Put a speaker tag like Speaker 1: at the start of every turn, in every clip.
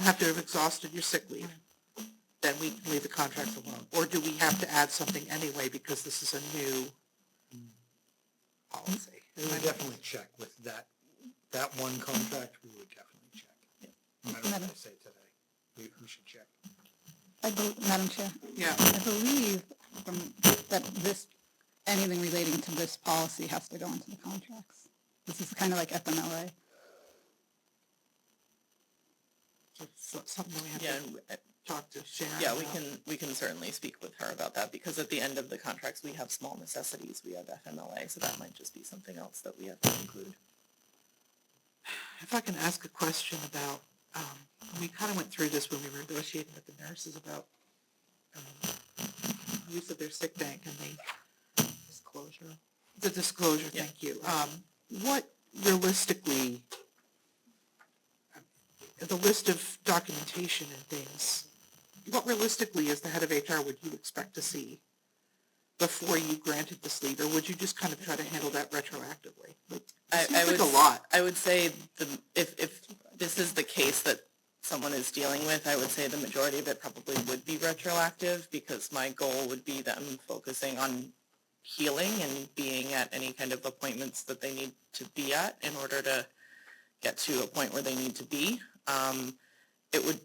Speaker 1: have to have exhausted your sick leave, then we can leave the contracts alone. Or do we have to add something anyway because this is a new policy?
Speaker 2: We would definitely check with that, that one contract, we would definitely check. No matter what
Speaker 3: Madam.
Speaker 2: they say today, we, we should check.
Speaker 3: I bel Madam Chair,
Speaker 1: Yeah,
Speaker 3: I believe from, that this, anything relating to this policy has to go into the contracts. This is kind of like FMLA.
Speaker 1: so- something we
Speaker 4: Yeah,
Speaker 1: have to
Speaker 4: and- uh,
Speaker 1: talk to Sharon.
Speaker 4: yeah, we
Speaker 1: about.
Speaker 4: can, we can certainly speak with her about that, because at the end of the contracts, we have small necessities, we have FMLA, so that might just be something else that we have to include.
Speaker 1: If I can ask a question about, um, we kind of went through this when we were negotiating with the nurses about um, use of their sick bank and the disclosure. The disclosure,
Speaker 4: Yeah.
Speaker 1: thank you. Um, what realistically, the list of documentation and things, what realistically as the head of HR would you expect to see before you granted this leave, or would you just kind of try to handle that retroactively? Like, it
Speaker 4: I,
Speaker 1: seems
Speaker 4: I
Speaker 1: like
Speaker 4: would,
Speaker 1: a lot.
Speaker 4: I would say the, if, if this is the case that someone is dealing with, I would say the majority of it probably would be retroactive, because my goal would be them focusing on healing and being at any kind of appointments that they need to be at in order to get to a point where they need to be. Um, it would,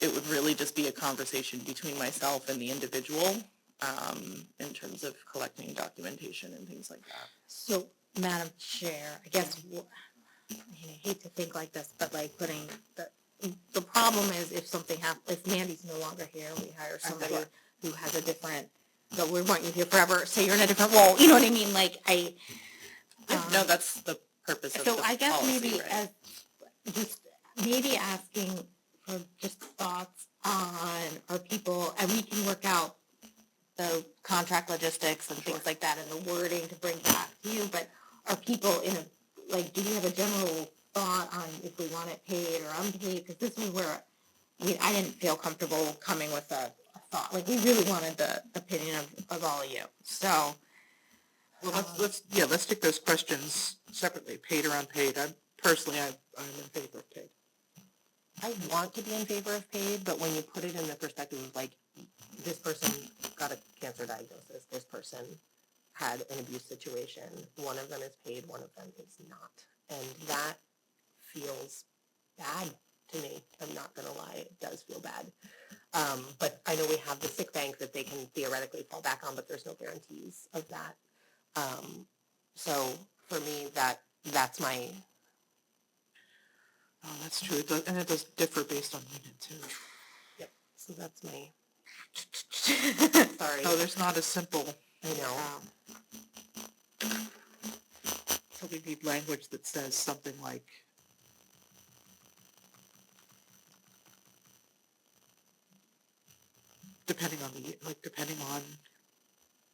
Speaker 4: it would really just be a conversation between myself and the individual, um, in terms of collecting documentation and things like that.
Speaker 5: So, Madam Chair, I guess, wh- I hate to think like this, but like putting, the, the problem is if something hap, if Mandy's no longer here, we hire somebody
Speaker 1: Sure.
Speaker 5: who has a different, but we want you here forever, so you're in a different role, you know what I mean, like, I.
Speaker 4: Yeah, no,
Speaker 5: um,
Speaker 4: that's the purpose of
Speaker 5: So
Speaker 4: the
Speaker 5: I guess
Speaker 4: policy,
Speaker 5: maybe
Speaker 4: right?
Speaker 5: as, just, maybe asking for just thoughts on, are people, and we can work out the contract logistics and things like that and the wording to bring back to you, but are people in a, like, do we have a general thought on if we want it paid or unpaid? Because this is where, I mean, I didn't feel comfortable coming with a a thought, like, we really wanted the opinion of, of all of you, so.
Speaker 1: Well, let's, let's, yeah, let's take those questions separately, paid or unpaid. I personally, I, I'm in favor of paid.
Speaker 5: I want to be in favor of paid, but when you put it in the perspective of like, this person got a cancer diagnosis, this person had an abuse situation, one of them is paid, one of them is not. And that feels bad to me. I'm not gonna lie, it does feel bad. Um, but I know we have the sick bank that they can theoretically fall back on, but there's no guarantees of that. Um, so for me, that, that's my,
Speaker 1: Oh, that's true. It does, and it does differ based on unit too.
Speaker 5: so that's my, sorry.
Speaker 1: No, Oh, there's not a simple,
Speaker 5: I know.
Speaker 1: um, so we need language that says something like, depending on the, like, depending on,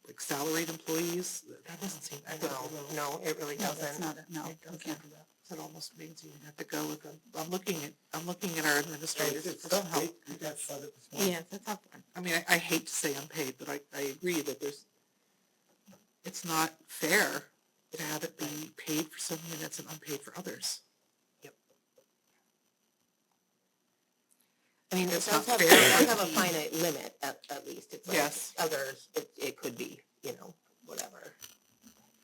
Speaker 1: like, salaried employees, that doesn't seem.
Speaker 5: I know, no, it really
Speaker 3: No, that's
Speaker 5: doesn't.
Speaker 3: not, it. no,
Speaker 1: It
Speaker 3: we
Speaker 1: does
Speaker 3: can't
Speaker 1: have that. That almost means you have to go with them. I'm looking at, I'm looking at our administrators
Speaker 2: It's
Speaker 1: for some
Speaker 2: tough.
Speaker 1: help.
Speaker 2: We- we got started this morning.
Speaker 5: Yeah, it's a tough one.
Speaker 1: I mean, I, I hate to say unpaid, but I, I agree that there's, it's not fair to have it be paid for some units and unpaid for others.
Speaker 5: I mean, it
Speaker 1: It's
Speaker 5: does
Speaker 1: not
Speaker 5: have, it
Speaker 1: fair.
Speaker 5: does have a finite limit at, at least. It's like
Speaker 1: Yes.
Speaker 5: others, it, it could be, you know, whatever,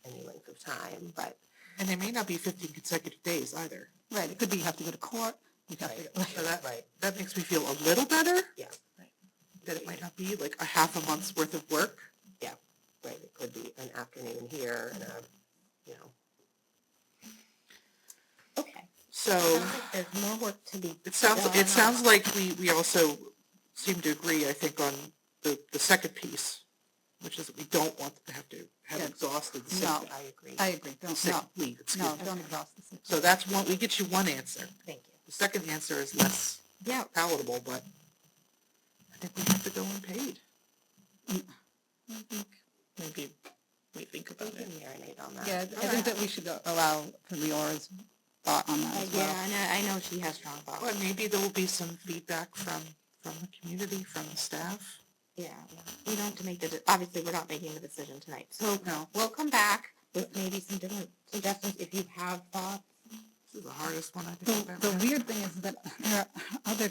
Speaker 5: any length of time, but.
Speaker 1: And they may not be fifteen consecutive days either.
Speaker 3: Right, it could be you have to go to court, you have to,
Speaker 5: Right,
Speaker 1: So that,
Speaker 5: Right,
Speaker 1: that makes me feel a little better.
Speaker 5: Yeah.
Speaker 1: That it might not be like a half a month's worth of work.
Speaker 5: right, it could be an afternoon here and a, you know. Okay.
Speaker 1: So
Speaker 5: There's more work to be.
Speaker 1: it sounds,
Speaker 5: Yeah.
Speaker 1: it sounds like we, we also seem to agree, I think, on the, the second piece, which is that we don't want to have to have
Speaker 3: Yeah.
Speaker 1: exhausted the sick
Speaker 3: No.
Speaker 1: bank.
Speaker 5: I agree,
Speaker 3: I agree, don't,
Speaker 1: Sick
Speaker 3: no,
Speaker 1: leave, excuse
Speaker 3: no,
Speaker 1: me.
Speaker 3: don't exhaust this.
Speaker 1: So that's one, we get you one answer.
Speaker 5: thank you.
Speaker 1: The second answer is less
Speaker 5: Yeah.
Speaker 1: palatable, but I think we have to go unpaid.
Speaker 5: Mm.
Speaker 4: I think maybe we think
Speaker 5: We
Speaker 4: about
Speaker 5: can
Speaker 4: it.
Speaker 5: marinate on that.
Speaker 3: Yeah, I think that we should allow for Leora's thought on that as well.
Speaker 5: I know, I know she has strong
Speaker 1: Well, maybe there will be some feedback from, from the community, from the staff.
Speaker 5: Yeah, yeah. we don't have to make the, de- obviously, we're not making the decision tonight, so
Speaker 1: Oh, No,
Speaker 5: we'll come back with maybe some different suggestions if you have thoughts.
Speaker 1: this is the hardest one I think
Speaker 3: The,
Speaker 1: I've ever.
Speaker 3: the weird thing is that there are other